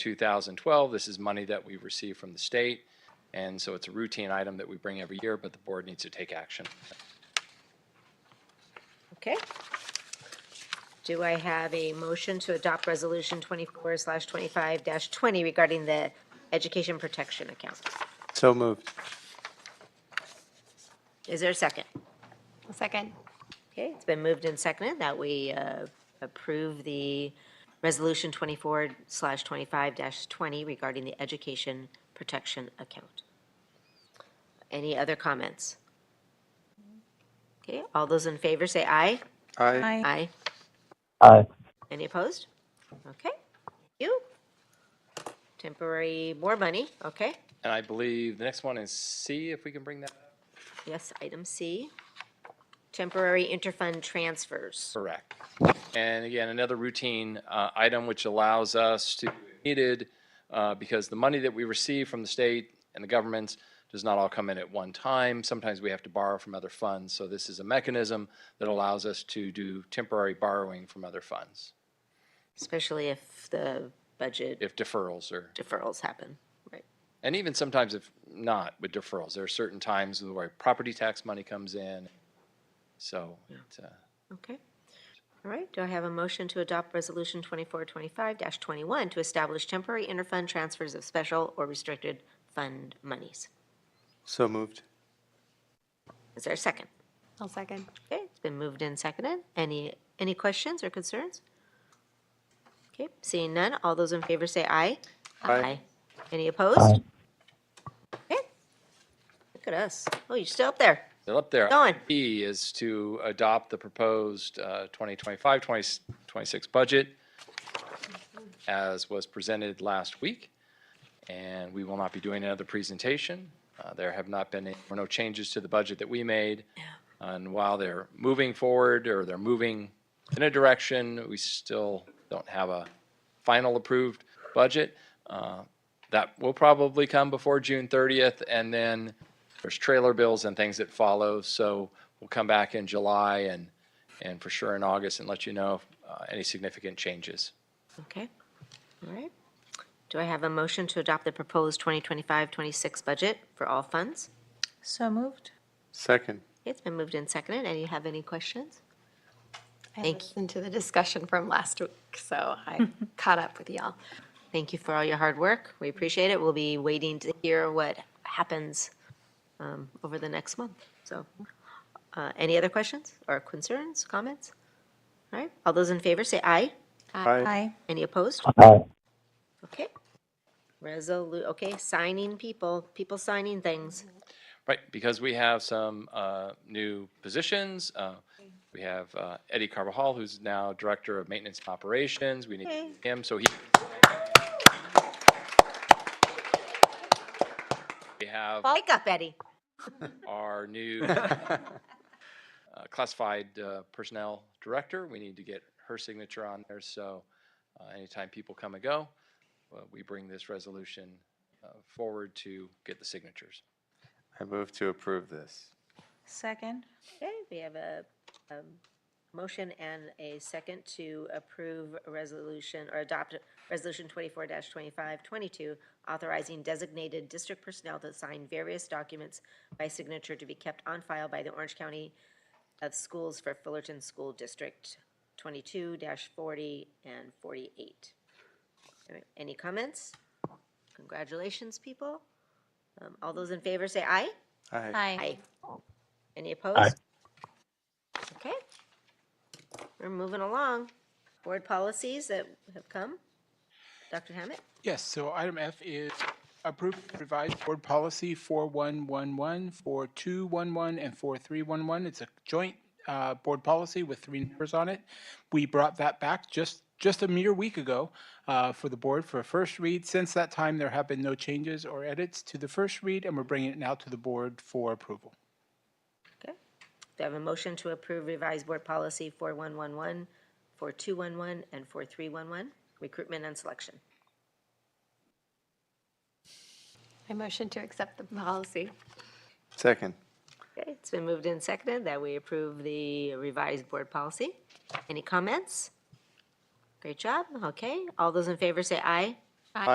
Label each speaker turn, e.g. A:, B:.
A: 2012. This is money that we receive from the state, and so it's a routine item that we bring every year, but the board needs to take action.
B: Okay. Do I have a motion to adopt Resolution 24 slash 25 dash 20 regarding the Education Protection Account?
C: So moved.
B: Is there a second?
D: A second.
B: Okay, it's been moved and seconded that we uh, approve the Resolution 24 slash 25 dash 20 regarding the Education Protection Account. Any other comments? Okay, all those in favor say aye. Aye.
C: Aye.
E: aye,
B: Any opposed? Okay, you. Temporary more money, okay.
A: And I believe the next one is C, if we can bring that up.
B: Yes, item C. Temporary interfund transfers.
A: Correct. And again, another routine uh, item which allows us to, if needed, uh, because the money that we receive from the state and the governments does not all come in at one time. Sometimes we have to borrow from other funds. So this is a mechanism that allows us to do temporary borrowing from other funds
B: Especially if the budget
A: if deferrals are,
B: deferrals happen. Right.
A: and even sometimes if not with deferrals. There are certain times where property tax money comes in. So it's, uh,
B: Okay. All right, do I have a motion to adopt Resolution 2425-21 to establish temporary interfund transfers of special or restricted fund monies?
C: So moved.
B: Is there a second?
D: A second.
B: Okay, it's been moved and seconded. Any, any questions or concerns? Okay, seeing none, all those in favor say aye.
C: Aye.
B: Any
E: aye.
B: opposed? Okay. Look at us. Oh, you're still up there.
A: Still up there.
B: Going.
A: E is to adopt the proposed uh, 2025, 2026 budget as was presented last week, and we will not be doing another presentation. Uh, There have not been, any- were no changes to the budget that we made. And while they're moving forward, or they're moving in a direction, we still don't have a final approved budget. Uh, That will probably come before June 30th, and then there's trailer bills and things that follow. So we'll come back in July and, and for sure in August and let you know uh, any significant changes.
B: Okay, all right. Do I have a motion to adopt the proposed 2025-26 budget for all funds?
F: So moved.
C: Second.
B: Okay, It's been moved and seconded. Any have any questions?
D: I
B: Thank you.
D: listened to the discussion from last week, so I caught up with y'all.
B: Thank you for all your hard work. We appreciate it. We'll be waiting to hear what happens um, over the next month. So, uh, any other questions or concerns, comments? All right, all those in favor say aye.
C: Aye.
B: Any opposed?
E: aye.
B: Okay. Resolu, okay, signing people, people signing things.
A: Right, because we have some uh, new positions. Uh, We have uh, Eddie Carvajal, who's now Director of Maintenance and Operations. We need him, so he. We have
B: Wake up, Eddie.
A: our new uh, classified uh, personnel director. We need to get her signature on there, so uh, anytime people come and go, uh, we bring this resolution uh, forward to get the signatures.
C: I move to approve this.
F: Second.
B: Okay, we have a um, motion and a second to approve a resolution or adopt Resolution 24-2522, authorizing designated district personnel to sign various documents by signature to be kept on file by the Orange County of Schools for Fullerton School District 22-40 and 48. All right, Any comments? Congratulations, people. Um, All those in favor say aye.
C: Aye.
F: Aye.
B: Any opposed? Okay. We're moving along. Board policies that have come. Dr. Hammett?
G: Yes, so item F is approve revised board policy 4111, 4211, and 4311. It's a joint uh, board policy with three numbers on it. We brought that back just, just a mere week ago uh, for the board for a first read. Since that time, there have been no changes or edits to the first read, and we're bringing it now to the board for approval.
B: Okay. Do I have a motion to approve revised board policy 4111, 4211, and 4311, recruitment and selection?
D: I motion to accept the policy.
C: Second.
B: Okay, it's been moved and seconded that we approve the revised board policy. Any comments? Great job. Okay, all those in favor say aye.